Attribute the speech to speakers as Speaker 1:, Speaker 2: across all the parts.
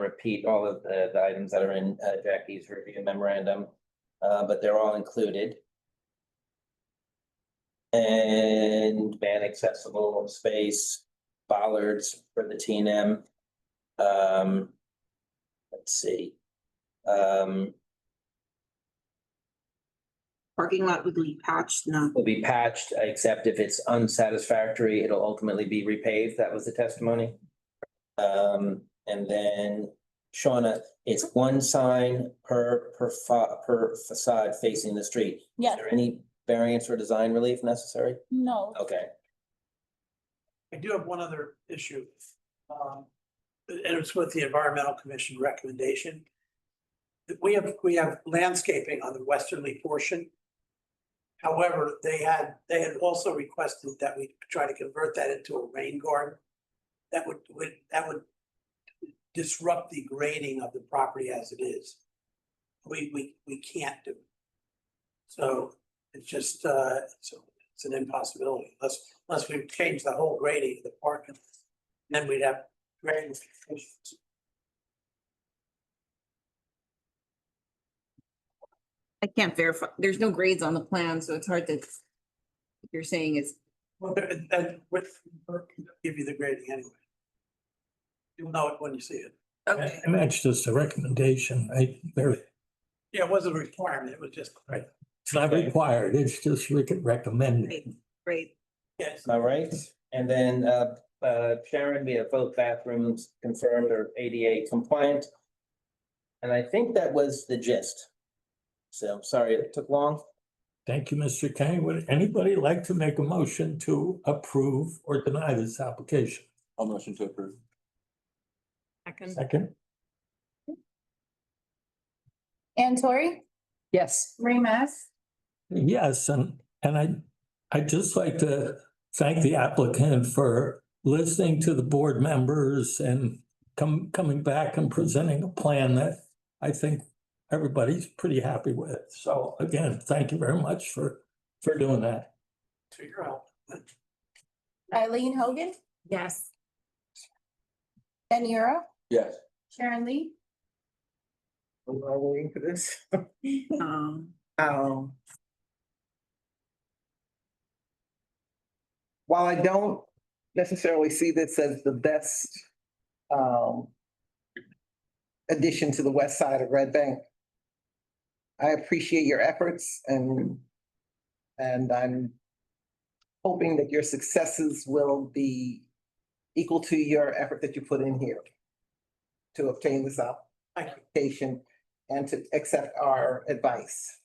Speaker 1: repeat all of the, the items that are in uh, Jackie's review memorandum, uh, but they're all included. And ban accessible space, bollards for the T and M. Um, let's see. Um,
Speaker 2: Parking lot would be patched, no.
Speaker 1: will be patched, except if it's unsatisfactory, it'll ultimately be repaved. That was the testimony. Um, and then Shauna, it's one sign per, per fa- per facade facing the street. Is
Speaker 3: Yeah,
Speaker 1: there any variance or design relief necessary?
Speaker 3: no,
Speaker 1: Okay,
Speaker 4: I do have one other issue. um, And it's with the Environmental Commission recommendation. That We have, we have landscaping on the westerly portion. However, they had, they had also requested that we try to convert that into a rain garden. That would, would, that would disrupt the grading of the property as it is. We, we, we can't do. it. So it's just, uh, so it's an impossibility unless, unless we change the whole grading of the parking. lot, Then we'd have grading. issues.
Speaker 2: I can't verify, there's no grades on the plan, so it's hard to. if You're saying it's,
Speaker 4: Well, there- and- and with, they'll give you the grading anyway. You'll know it when you see it.
Speaker 2: okay,
Speaker 5: And that's just a recommendation, right? There,
Speaker 4: Yeah, it wasn't a requirement, it was just.
Speaker 5: Right. it's not required, it's just we could recommend. it.
Speaker 2: great.
Speaker 4: Yes,
Speaker 1: all right. And then, uh, uh, Sharon, we have both bathrooms confirmed or ADA compliant. And I think that was the gist. So sorry it took long.
Speaker 5: Thank you, Mr. Kane. Would anybody like to make a motion to approve or deny this application?
Speaker 6: I'll motion to approve.
Speaker 5: Second,
Speaker 3: Ann Tori,
Speaker 7: Yes.
Speaker 3: Ray Mass,
Speaker 5: yes, and, and I, I'd just like to thank the applicant for listening to the board members and come, coming back and presenting a plan that I think everybody's pretty happy with. So again, thank you very much for, for doing that.
Speaker 4: to your help.
Speaker 3: Eileen Hogan,
Speaker 7: Yes.
Speaker 3: Ben Euro,
Speaker 6: Yes.
Speaker 3: Sharon Lee.
Speaker 8: We're all waiting for this.
Speaker 2: Um,
Speaker 8: Um. While I don't necessarily see this as the best, um. Addition to the west side of Red Bank. I appreciate your efforts and, and I'm. Hoping that your successes will be equal to your effort that you put in here. To obtain this
Speaker 4: Thank you.
Speaker 8: application and to accept our advice.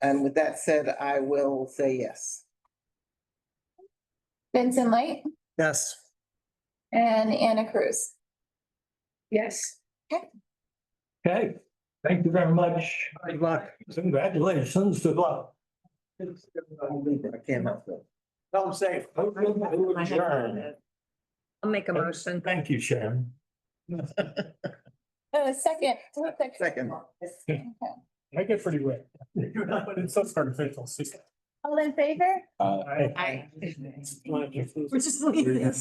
Speaker 8: And with that said, I will say yes.
Speaker 3: Vincent Light,
Speaker 8: Yes.
Speaker 3: and Anna Cruz.
Speaker 7: Yes.
Speaker 5: Okay, thank you very much.
Speaker 8: Good luck.
Speaker 5: Congratulations, good luck.
Speaker 8: I can't help it.
Speaker 4: Tell them safe.
Speaker 7: I'll make a motion.
Speaker 5: Thank you, Sharon.
Speaker 3: Oh, second.
Speaker 8: Second.
Speaker 3: Okay.
Speaker 5: I get pretty wet. It's so sort of faithful.
Speaker 3: All in favor?
Speaker 6: Uh,
Speaker 7: We're just leaving.